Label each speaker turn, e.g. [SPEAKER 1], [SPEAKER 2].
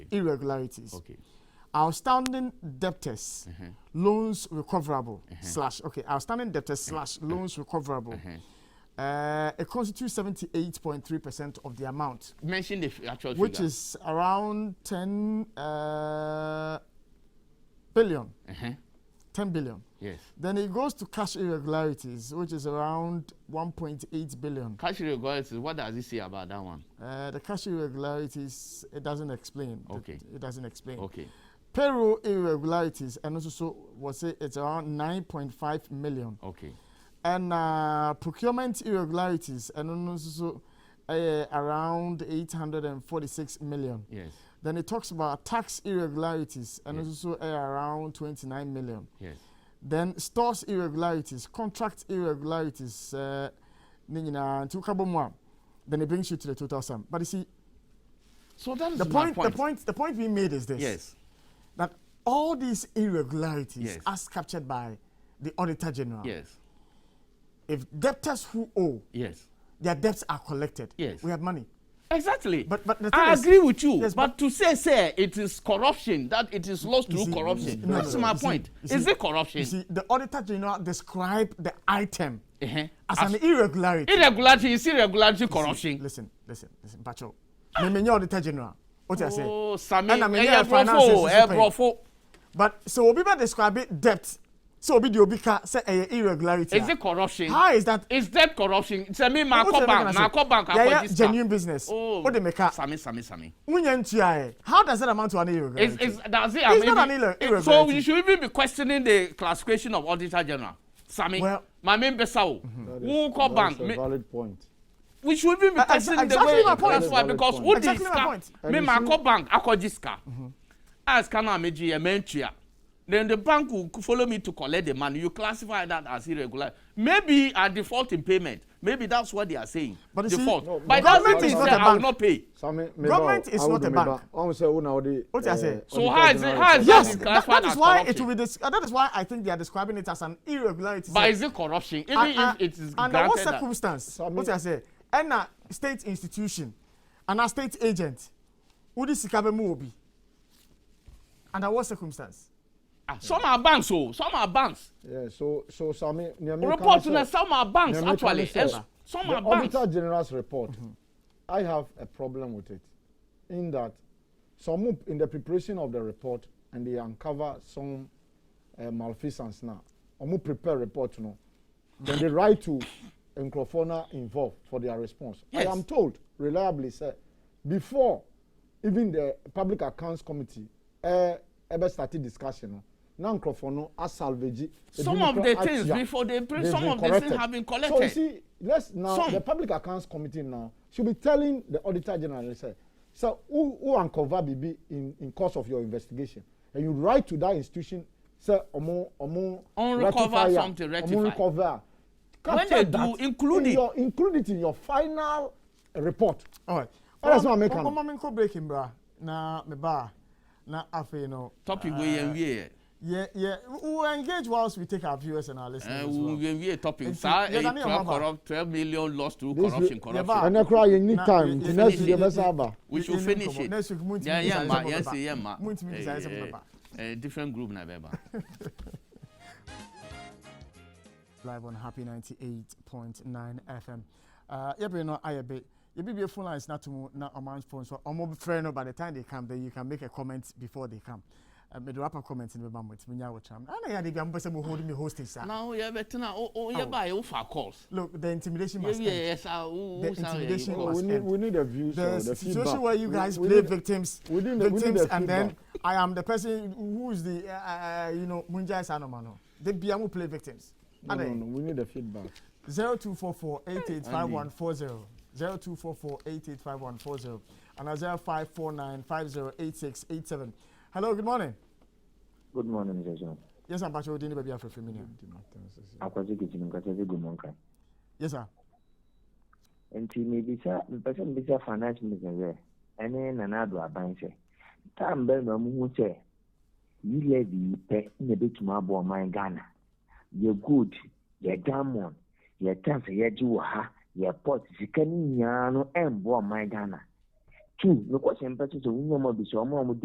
[SPEAKER 1] irregularities.
[SPEAKER 2] Okay.
[SPEAKER 1] Outstanding debtors,
[SPEAKER 2] Mm-hmm.
[SPEAKER 1] loans recoverable, slash, okay, outstanding debtors, slash,
[SPEAKER 2] Mm-hmm.
[SPEAKER 1] loans recoverable.
[SPEAKER 2] Uh-huh.
[SPEAKER 1] Uh, it constitutes 78.3% of the amount,
[SPEAKER 2] Mention the f- actual
[SPEAKER 1] which
[SPEAKER 2] figure.
[SPEAKER 1] is around 10 uh, billion.
[SPEAKER 2] Uh-huh.
[SPEAKER 1] 10 billion.
[SPEAKER 2] Yes.
[SPEAKER 1] Then it goes to cash irregularities, which is around 1.8 billion.
[SPEAKER 2] Cash regulations. What does it say about that one?
[SPEAKER 1] Uh, the cash irregularities, it doesn't explain. It-
[SPEAKER 2] Okay.
[SPEAKER 1] It doesn't explain.
[SPEAKER 2] Okay.
[SPEAKER 1] Payroll irregularities, and also so was say it's around 9.5 million.
[SPEAKER 2] Okay.
[SPEAKER 1] And uh, procurement irregularities, and also so uh, around 846 million.
[SPEAKER 2] Yes.
[SPEAKER 1] Then it talks about tax irregularities, and
[SPEAKER 2] Yeah.
[SPEAKER 1] also so uh, around 29 million.
[SPEAKER 2] Yes.
[SPEAKER 1] then stores irregularities contract irregularities uh, ne nyinaa nti woka bɔ mu a then it brings you to the total sum but you see
[SPEAKER 2] So that is
[SPEAKER 1] the
[SPEAKER 2] my
[SPEAKER 1] point,
[SPEAKER 2] point.
[SPEAKER 1] the point the point we made is this
[SPEAKER 2] Yes.
[SPEAKER 1] that all these irregularities
[SPEAKER 2] Yes.
[SPEAKER 1] as captured by the auditor general
[SPEAKER 2] Yes.
[SPEAKER 1] if debtors who owe
[SPEAKER 2] Yes.
[SPEAKER 1] their debts are collected
[SPEAKER 2] Yes.
[SPEAKER 1] we have money
[SPEAKER 2] Exactly.
[SPEAKER 1] But- but the
[SPEAKER 2] I
[SPEAKER 1] thing is-
[SPEAKER 2] agree with you.
[SPEAKER 1] Yes,
[SPEAKER 2] but, to say, say it is corruption, that it is lost through
[SPEAKER 1] see, you see,
[SPEAKER 2] corruption.
[SPEAKER 1] no, no,
[SPEAKER 2] That's
[SPEAKER 1] no,
[SPEAKER 2] my
[SPEAKER 1] you see,
[SPEAKER 2] point.
[SPEAKER 1] you see,
[SPEAKER 2] is it corruption?
[SPEAKER 1] you see the auditor general described the item
[SPEAKER 2] uh-huh. Ah,
[SPEAKER 1] as, an irregularity
[SPEAKER 2] irregularity is irregularity corruption.
[SPEAKER 1] listen listen listen bacho memenye auditor general what you say
[SPEAKER 2] Oh, Sami,
[SPEAKER 1] Ɛna meyɛ
[SPEAKER 2] ɛyɛ
[SPEAKER 1] finances
[SPEAKER 2] brɔfo,
[SPEAKER 1] nso
[SPEAKER 2] ɛyɛ
[SPEAKER 1] pɛn.
[SPEAKER 2] brɔfo.
[SPEAKER 1] but so obi bɛ describe debt so obi di obi ka sɛ ɛyɛ eh, irregularity
[SPEAKER 2] Is
[SPEAKER 1] a,
[SPEAKER 2] it corruption?
[SPEAKER 1] how is that
[SPEAKER 2] Is that corruption? Sami, my
[SPEAKER 1] Wo sɛ
[SPEAKER 2] call bank,
[SPEAKER 1] ɛbɛka
[SPEAKER 2] my
[SPEAKER 1] na
[SPEAKER 2] call
[SPEAKER 1] sɛ,
[SPEAKER 2] bank, I call
[SPEAKER 1] yɛyɛ
[SPEAKER 2] this
[SPEAKER 1] genuine business
[SPEAKER 2] Oh.
[SPEAKER 1] o de meka
[SPEAKER 2] Sami, Sami, Sami.
[SPEAKER 1] nwunyɛ ntua yɛ how does that amount to an
[SPEAKER 2] Is,
[SPEAKER 1] irregularity
[SPEAKER 2] is, does it, I
[SPEAKER 1] It's
[SPEAKER 2] mean,
[SPEAKER 1] not an irre-
[SPEAKER 2] it- so
[SPEAKER 1] irregularity.
[SPEAKER 2] you should even be questioning the classification of Auditor General. Sami,
[SPEAKER 1] Well- Mm-hmm.
[SPEAKER 2] my main besao, who call bank,
[SPEAKER 3] That's a
[SPEAKER 2] me-
[SPEAKER 3] valid point.
[SPEAKER 2] we should even be
[SPEAKER 1] Uh, exa-
[SPEAKER 2] testing
[SPEAKER 1] exactly
[SPEAKER 2] the way
[SPEAKER 1] my point.
[SPEAKER 2] that's why
[SPEAKER 3] Valid
[SPEAKER 2] because
[SPEAKER 3] point.
[SPEAKER 2] who
[SPEAKER 1] Exactly
[SPEAKER 2] did
[SPEAKER 1] my
[SPEAKER 2] scar
[SPEAKER 1] point. Mm-hmm.
[SPEAKER 2] me
[SPEAKER 3] And
[SPEAKER 2] ma
[SPEAKER 3] you
[SPEAKER 2] ko bank akɔgye sika as kana meji yɛ mɛntua then the bank will follow me to collect the money you classify that as irregular maybe i default in payment maybe that's what they are saying
[SPEAKER 1] But you see,
[SPEAKER 2] default
[SPEAKER 3] No,
[SPEAKER 2] but it
[SPEAKER 3] government
[SPEAKER 2] doesn't
[SPEAKER 3] is
[SPEAKER 2] mean
[SPEAKER 3] not
[SPEAKER 2] say
[SPEAKER 1] a
[SPEAKER 2] i will
[SPEAKER 1] bank.
[SPEAKER 2] not pay
[SPEAKER 3] Sami,
[SPEAKER 1] Government is not a bank.
[SPEAKER 3] I'm saying una odi.
[SPEAKER 1] What you say?
[SPEAKER 2] So how is it- how is it
[SPEAKER 1] yes
[SPEAKER 2] is
[SPEAKER 1] that,
[SPEAKER 2] classified
[SPEAKER 1] that is
[SPEAKER 2] as
[SPEAKER 1] why it
[SPEAKER 2] corruption.
[SPEAKER 1] will be des- uh, that is why i think they are describing it as an irregularity
[SPEAKER 2] but is it corruption even
[SPEAKER 1] And-
[SPEAKER 2] if
[SPEAKER 1] Ah, and-
[SPEAKER 2] it is
[SPEAKER 1] under what
[SPEAKER 2] granted that
[SPEAKER 1] circumstance
[SPEAKER 3] Sami-
[SPEAKER 1] what you say ɛna state institution ana state agent wodi sika bɛ mu obi under what circumstance.
[SPEAKER 2] ah, some are banks o some are banks
[SPEAKER 3] Yeah, so so Sami,
[SPEAKER 2] report na some are banks
[SPEAKER 3] Nyame ka
[SPEAKER 2] actually
[SPEAKER 3] ne sɛ,
[SPEAKER 2] and some
[SPEAKER 3] the
[SPEAKER 2] are banks
[SPEAKER 3] Auditor General's report, I have a problem with it, in that some of- in the preparation of the report and they uncover some uh, malfeasance now. Omu prepare report no, then they write to Nkrofona involved for their response.
[SPEAKER 2] Yes.
[SPEAKER 3] I am told reliably sir, before even the Public Accounts Committee uh, ever started discussion no, na Nkrofona asalvage.
[SPEAKER 2] some of the things before they bring some of the things have been
[SPEAKER 3] So you
[SPEAKER 2] collected.
[SPEAKER 3] see, let's now
[SPEAKER 2] Some.
[SPEAKER 3] the Public Accounts Committee now should be telling the Auditor General say, so who who uncover BB in in course of your investigation, and you write to that institution, say omo omo
[SPEAKER 2] Unrecover
[SPEAKER 3] rectify ya,
[SPEAKER 2] something, rectify.
[SPEAKER 3] omo recover.
[SPEAKER 2] When
[SPEAKER 3] Capture
[SPEAKER 2] they
[SPEAKER 3] that
[SPEAKER 2] do, include
[SPEAKER 3] in
[SPEAKER 2] it.
[SPEAKER 3] your include it in your final report.
[SPEAKER 1] all right.
[SPEAKER 3] That is what I'm making.
[SPEAKER 1] Ọmọ mi nkọ break mbra na mi ba na afei no.
[SPEAKER 2] topic wey yẹn wie
[SPEAKER 1] Yẹ yẹ we will engage whilst we take our viewers and our listeners
[SPEAKER 2] yẹ
[SPEAKER 1] as well.
[SPEAKER 2] yẹn wie topic
[SPEAKER 1] Nti,
[SPEAKER 2] saa
[SPEAKER 1] yɛda ne yɛn
[SPEAKER 2] eyi
[SPEAKER 1] ho
[SPEAKER 2] twelve
[SPEAKER 1] aba.
[SPEAKER 2] corrupt twelve million lost through
[SPEAKER 3] This
[SPEAKER 2] corruption
[SPEAKER 3] yɛ-
[SPEAKER 1] Ah.
[SPEAKER 2] corruption
[SPEAKER 3] And ekura yɛ ni
[SPEAKER 1] Na-
[SPEAKER 3] time
[SPEAKER 1] yɛ-
[SPEAKER 3] ti
[SPEAKER 1] yɛ-
[SPEAKER 3] next
[SPEAKER 1] yɛ-
[SPEAKER 3] year
[SPEAKER 1] yɛ-
[SPEAKER 3] bɛ sa ba.
[SPEAKER 2] we
[SPEAKER 1] yɛ-
[SPEAKER 2] should
[SPEAKER 1] yɛ-
[SPEAKER 2] finish
[SPEAKER 1] nkɔmmɔ.
[SPEAKER 2] it
[SPEAKER 1] Next week, mo ntimi
[SPEAKER 2] yẹn yẹn
[SPEAKER 1] nsa
[SPEAKER 2] ma
[SPEAKER 1] nsɛm
[SPEAKER 2] yẹn
[SPEAKER 1] ɔbɛba.
[SPEAKER 2] si yẹn ma
[SPEAKER 1] Mo ntimi nsa nsɛm
[SPEAKER 2] Eh,
[SPEAKER 1] ɔbɛba.
[SPEAKER 2] eh, different group na bẹ ba.
[SPEAKER 1] live on happy ninety eight point nine Uh, fm. yɛbɛn no ayɛ bɛ yɛbibie phone lines na to mu na ɔman phone so ɔmo frɛ no by the time they come then you can make a comment before they come. Uh, mede wapa comment no bɛma mo ntimi nya awotram ana yɛade bia mopɛ sɛ mohode me hostage saa
[SPEAKER 2] na o yẹ bẹ tena o o yẹ ba yẹ o fa calls
[SPEAKER 1] look the intimidation
[SPEAKER 2] yẹ
[SPEAKER 1] must end.
[SPEAKER 2] wie yẹ sa o
[SPEAKER 1] The
[SPEAKER 2] o sa yẹ
[SPEAKER 1] intimidation
[SPEAKER 2] yẹ
[SPEAKER 1] was-
[SPEAKER 2] calls
[SPEAKER 3] We need we need the views
[SPEAKER 1] the,
[SPEAKER 3] or the
[SPEAKER 1] situation
[SPEAKER 3] feedback.
[SPEAKER 1] where you guys
[SPEAKER 3] we,
[SPEAKER 1] play
[SPEAKER 3] we need,
[SPEAKER 1] victims,
[SPEAKER 3] we need the- we need
[SPEAKER 1] victims,
[SPEAKER 3] the
[SPEAKER 1] and then
[SPEAKER 3] feedback.
[SPEAKER 1] I am the person who is the uh, uh, you know Munjai Sanomano. The Biamu play victims.
[SPEAKER 3] No, no, no, we need the feedback.
[SPEAKER 1] Zero two four four eight eight five one four zero. Zero two four four eight eight five one four zero. And zero five four nine five zero eight six eight seven. Hello, good morning.
[SPEAKER 4] Good morning, Jason.
[SPEAKER 1] Yes, I'm Patrick Odini Baby Afro
[SPEAKER 4] Akwasi kitchen nkasa bi gumu nka.
[SPEAKER 1] Yes, sir.
[SPEAKER 4] Nti mebisa mpɛsɛ mbisa finance minister sɛ ɛne nana ado aban sɛ tam bɛn na muhu sɛ yi levy yi pɛ na ebetumi abɔ ɔman ghana yɛ gold yɛ diamond yɛ tans yɛgye wɔ ha yɛ pot e sika no nyinaa no ɛmbɔ ɔman ghana two mekɔhyɛ mpɛsɛ sɛ wo nyɛma bi sɛ ɔmo a ɔmo